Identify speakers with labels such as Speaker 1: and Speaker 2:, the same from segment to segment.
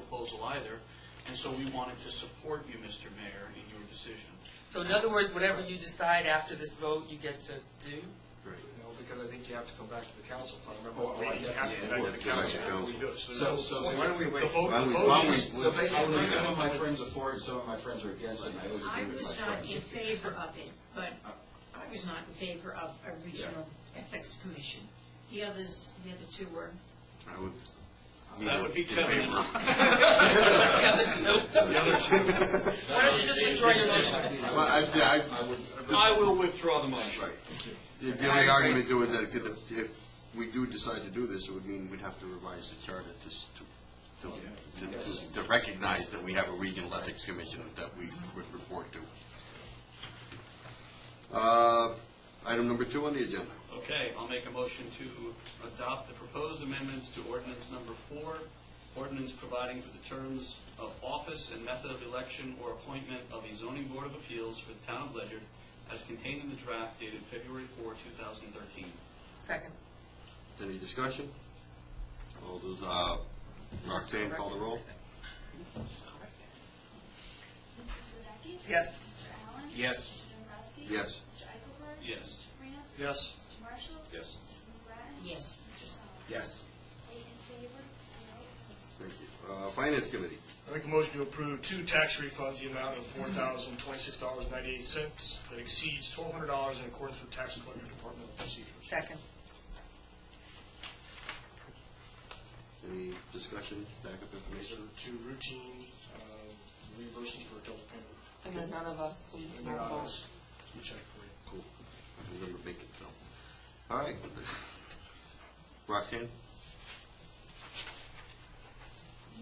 Speaker 1: proposal either, and so we wanted to support you, Mr. Mayor, in your decision.
Speaker 2: So in other words, whatever you decide after this vote, you get to do?
Speaker 3: No, because I think you have to come back to the council, if I remember.
Speaker 4: Well,
Speaker 3: right.
Speaker 4: we have to go back to the council after we do it.
Speaker 5: So, so
Speaker 4: Why don't we wait?
Speaker 5: The vote,
Speaker 6: Why don't
Speaker 5: the
Speaker 6: we-
Speaker 5: vote
Speaker 6: why don't
Speaker 5: is,
Speaker 6: we-
Speaker 5: so basically,
Speaker 6: why don't we-
Speaker 5: some of my friends are for it, some of my friends are against it, and I always
Speaker 7: I
Speaker 5: agree with my
Speaker 7: was not in
Speaker 5: friends.
Speaker 7: favor of it, but I was not in favor of a regional ethics commission. The others, the other two were.
Speaker 6: I would.
Speaker 1: That would be Kevin.
Speaker 2: Yeah, the two. Why don't you just withdraw your motion?
Speaker 6: Well, I, I,
Speaker 5: I would,
Speaker 1: I will withdraw the motion.
Speaker 6: right. If the only argument do is that if, if we do decide to do this, it would mean we'd have to revise the charter to, s- to, to, to- to recognize that we have a regional ethics commission that we would report to. Uh, item number two on the agenda.
Speaker 1: Okay, I'll make a motion to adopt the proposed amendments to ordinance number four, ordinance providing for the terms of office and method of election or appointment of a zoning board of appeals for the town of Ledger as contained in the draft dated February 4, 2013.
Speaker 2: Second.
Speaker 6: Any discussion? All those, uh, Roxanne, call the roll?
Speaker 8: Mrs. Radecki?
Speaker 2: Yes.
Speaker 8: Mr. Allen?
Speaker 4: Yes.
Speaker 8: Mr. Dombrowski?
Speaker 6: Yes.
Speaker 8: Mr. Eichelberg?
Speaker 1: Yes.
Speaker 8: Mr. France?
Speaker 3: Yes.
Speaker 8: Mr. Marshall?
Speaker 4: Yes.
Speaker 8: Mrs. McGrattan?
Speaker 7: Yes.
Speaker 8: Mr. Song?
Speaker 5: yes.
Speaker 8: Eight in favor, zero opposed.
Speaker 6: Thank you. Uh, Finance Committee.
Speaker 4: I make a motion to approve two tax refunds, the amount of four thousand twenty-six dollars ninety-eight cents that exceeds twelve hundred dollars in accordance with tax collector departmental procedures.
Speaker 2: Second.
Speaker 6: Any discussion, backup
Speaker 4: These
Speaker 6: information?
Speaker 4: are two routine um, reimbursements for adult payment.
Speaker 2: And then none of us, so you can
Speaker 4: And they're
Speaker 2: all
Speaker 4: on
Speaker 2: vote.
Speaker 4: us. We check for you.
Speaker 6: Cool. I remember making some. All right. Roxanne?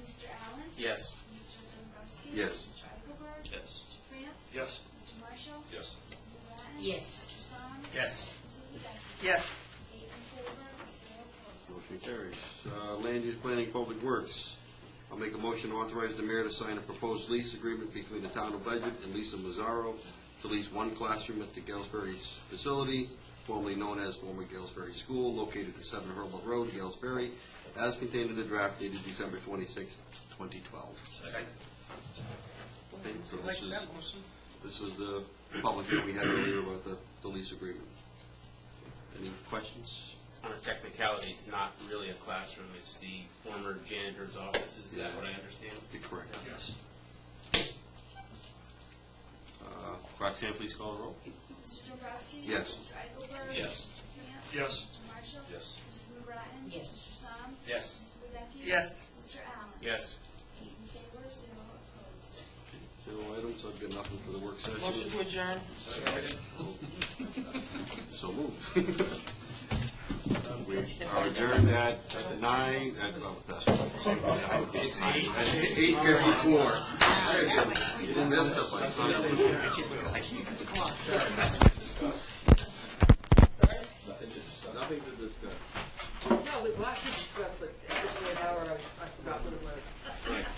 Speaker 8: Mr. Allen?
Speaker 4: Yes.
Speaker 8: Mr. Dombrowski?
Speaker 6: Yes.
Speaker 8: Mr. Eichelberg?
Speaker 1: Yes.
Speaker 8: Mr. France?
Speaker 4: Yes.
Speaker 8: Mr. Marshall?
Speaker 4: Yes.
Speaker 8: Mrs. McGrattan?
Speaker 7: Yes.
Speaker 8: Mr. Song?
Speaker 4: Yes.
Speaker 8: Mrs. Radecki?
Speaker 2: Yes.
Speaker 8: Eight in favor, zero opposed.
Speaker 6: Motion carries. Uh, Land Use Planning Public Works. I'll make a motion to authorize the mayor to sign a proposed lease agreement between the town of Ledger and Lisa Mazzaro to lease one classroom at the Gales Ferry facility, formerly known as former Gales Ferry School, located at Seven Hurlow Road, Gales Ferry, as contained in the draft dated December 26, 2012.
Speaker 1: Second.
Speaker 6: Okay, so
Speaker 2: Like
Speaker 6: this is-
Speaker 2: that motion?
Speaker 6: This was the public hearing we had earlier about the, the lease agreement. Any questions?
Speaker 9: on a technicality, it's not really a classroom, it's the former janitor's office, is that what I understand?
Speaker 6: I think Correct.
Speaker 4: Yes.
Speaker 6: Uh, Roxanne, please call the roll.
Speaker 8: Mr. Dombrowski?
Speaker 6: Yes.
Speaker 8: Mr. Eichelberg?
Speaker 1: Yes.
Speaker 8: Mr. France?
Speaker 4: Yes.
Speaker 8: Mr. Marshall?
Speaker 4: Yes.
Speaker 8: Mrs. McGrattan?
Speaker 7: Yes.
Speaker 8: Mr. Song?
Speaker 4: Yes.
Speaker 8: Mrs. Radecki?
Speaker 2: Yes.
Speaker 8: Mr. Allen?
Speaker 9: Yes.
Speaker 8: Eight in favor, zero
Speaker 6: No
Speaker 8: opposed.
Speaker 6: items, I've got nothing for the work session.
Speaker 2: Motion to adjourn?
Speaker 6: So moved. We are adjourned at nine, at, oh, well, that's. It's eight. Eight fifty-four. You messed up my son. I can't see the clock.
Speaker 5: Nothing to discuss.
Speaker 6: Nothing to discuss.
Speaker 2: No, it was last week, but it was an hour, I forgot what it was.
Speaker 1: Right.